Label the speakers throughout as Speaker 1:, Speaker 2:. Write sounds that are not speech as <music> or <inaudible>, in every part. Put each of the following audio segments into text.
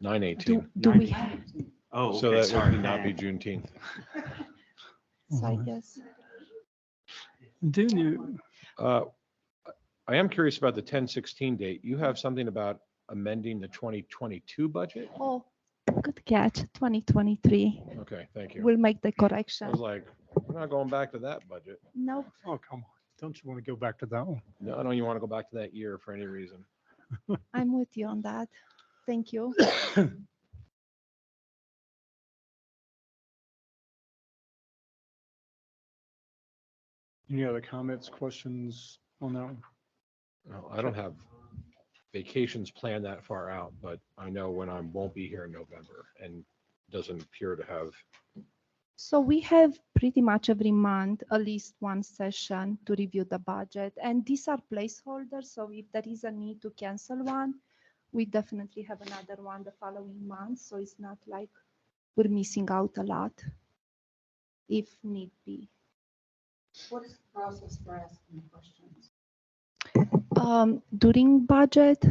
Speaker 1: nine
Speaker 2: Do,
Speaker 1: eighteen.
Speaker 2: do we have,
Speaker 3: Oh,
Speaker 1: So
Speaker 3: okay,
Speaker 1: that
Speaker 3: sorry.
Speaker 1: would not be
Speaker 3: man.
Speaker 1: Juneteenth. Mm-hmm.
Speaker 2: so I
Speaker 4: Mhm.
Speaker 2: guess,
Speaker 4: Do you,
Speaker 1: Uh, I am curious about the ten sixteen date. You have something about amending the twenty twenty-two budget?
Speaker 2: oh, good catch, 2023.
Speaker 1: Okay, thank you.
Speaker 2: We'll make the
Speaker 1: I
Speaker 2: correction.
Speaker 1: was like, we're not going back to that budget.
Speaker 2: Nope.
Speaker 4: oh, come on. Don't you want to go back to that one?
Speaker 1: No, I don't even want to go back to that year for any reason.
Speaker 2: I'm with you on that. Thank you.
Speaker 4: Any other comments, questions on that one?
Speaker 1: No, I don't have vacations planned that far out, but I know when I won't be here in November and doesn't appear to have,
Speaker 2: So we have pretty much every month at least one session to review the budget. And these are placeholders, so if there is a need to cancel one, we definitely have another one the following month, so it's not like we're missing out a lot if need be.
Speaker 5: What is the process for asking questions?
Speaker 2: um, during budget.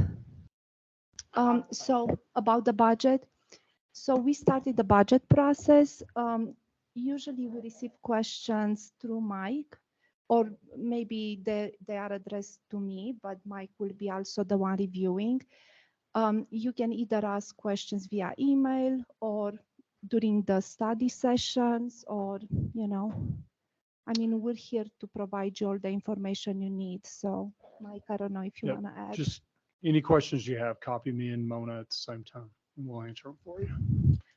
Speaker 2: Um, so about the budget, so we started the budget process. Um, usually we receive questions through Mike, or maybe they, they are addressed to me, but Mike will be also the one reviewing. Um, you can either ask questions via email or during the study sessions or, you know, I mean, we're here to provide you all the information you need. So Mike, I don't know if you
Speaker 4: Yep,
Speaker 2: want to add.
Speaker 4: Just any questions you have, copy me and Mona at the same time and we'll answer them for you.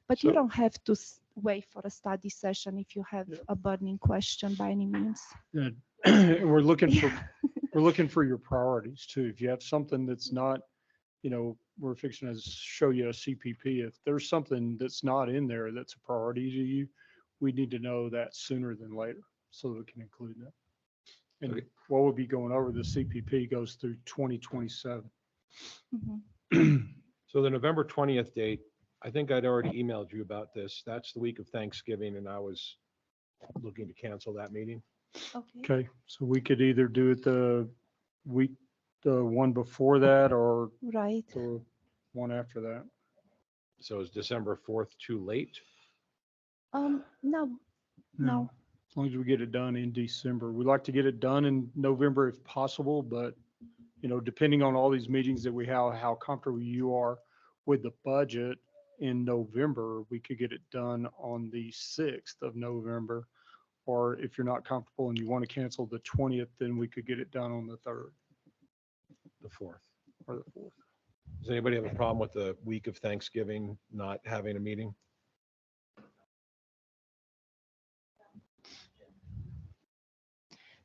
Speaker 2: But you
Speaker 4: So-
Speaker 2: don't have to s- wait for a study session if you have
Speaker 4: Yeah.
Speaker 2: a burning question by any means.
Speaker 4: And <clears throat> we're looking for,
Speaker 2: <laughs> Yeah.
Speaker 4: we're looking for your priorities too. If you have something that's not, you know, we're fixing to show you a CPP. If there's something that's not in there that's a priority to you, we need to know that sooner than later so that we can include that. And
Speaker 1: Okay.
Speaker 4: what we'll be going over, the CPP goes through 2027.
Speaker 2: Mhm.
Speaker 1: so the November twentieth date, I think I'd already emailed you about this. That's the week of Thanksgiving and I was looking to cancel that meeting.
Speaker 2: Okay.
Speaker 4: Okay, so we could either do it the week, the one before that or
Speaker 2: Right.
Speaker 4: the one after that.
Speaker 1: So is December fourth too late?
Speaker 2: Um, no, no.
Speaker 4: As long as we get it done in December. We'd like to get it done in November if possible, but, you know, depending on all these meetings that we have, how comfortable you are with the budget in November, we could get it done on the sixth of November. Or if you're not comfortable and you want to cancel the twentieth, then we could get it done on the third
Speaker 1: The fourth.
Speaker 4: or the fourth.
Speaker 1: Does anybody have a problem with the week of Thanksgiving not having a meeting?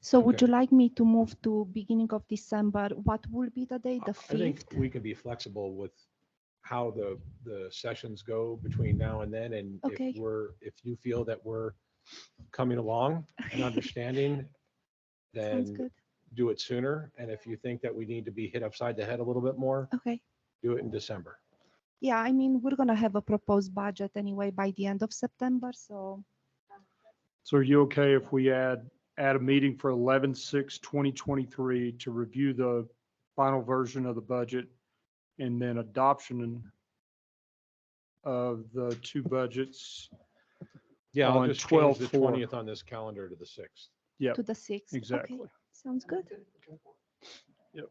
Speaker 2: So would
Speaker 1: Okay.
Speaker 2: you like me to move to beginning of December? What will be the day?
Speaker 1: I
Speaker 2: The
Speaker 1: think
Speaker 2: fifth?
Speaker 1: we can be flexible with how the, the sessions go between now and then, and
Speaker 2: Okay.
Speaker 1: if we're, if you feel that we're coming along and understanding,
Speaker 2: <laughs> Sounds
Speaker 1: then
Speaker 2: good.
Speaker 1: do it sooner, and if you think that we need to be hit upside the head a little bit more,
Speaker 2: Okay.
Speaker 1: do it in December.
Speaker 2: Yeah, I mean, we're gonna have a proposed budget anyway by the end of September, so
Speaker 4: So are you okay if we add, add a meeting for 11-6-2023 to review the final version of the budget and then adoption of the two budgets?
Speaker 1: Yeah, I'll
Speaker 4: On
Speaker 1: just change the
Speaker 4: 12-4.
Speaker 1: twentieth on this calendar to the sixth.
Speaker 4: Yep,
Speaker 2: to the sixth. Okay,
Speaker 4: exactly.
Speaker 2: Sounds good.
Speaker 4: Yep.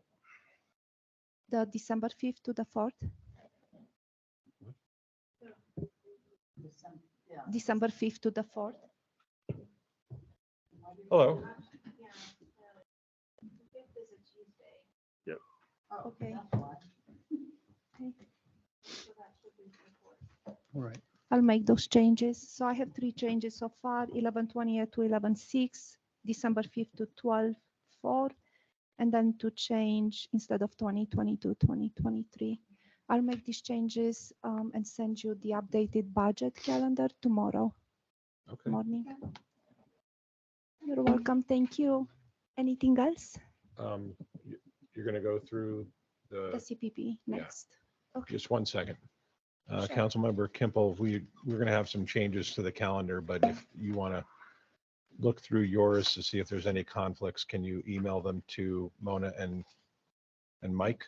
Speaker 2: The December fifth to the fourth,
Speaker 5: Some- yeah.
Speaker 2: December fifth to the fourth.
Speaker 1: Hello.
Speaker 4: Yep.
Speaker 5: Oh,
Speaker 2: Okay.
Speaker 5: that's why.
Speaker 4: All right.
Speaker 2: I'll make those changes. So I have three changes so far, eleven twenty eight to eleven six, December fifth to twelve four, and then to change instead of 2020 to 2023. I'll make these changes um, and send you the updated budget calendar tomorrow
Speaker 1: Okay.
Speaker 2: morning. You're welcome. Thank you. Anything else?
Speaker 1: Um, you- You're going to go through
Speaker 2: The
Speaker 1: the,
Speaker 2: CPP
Speaker 1: Uh, yeah.
Speaker 2: next. Okay.
Speaker 1: just one second. Uh,
Speaker 2: Sure.
Speaker 1: Councilmember Kimple, we, we're going to have some changes to the calendar, but if you want to look through yours to see if there's any conflicts, can you email them to Mona and, and Mike?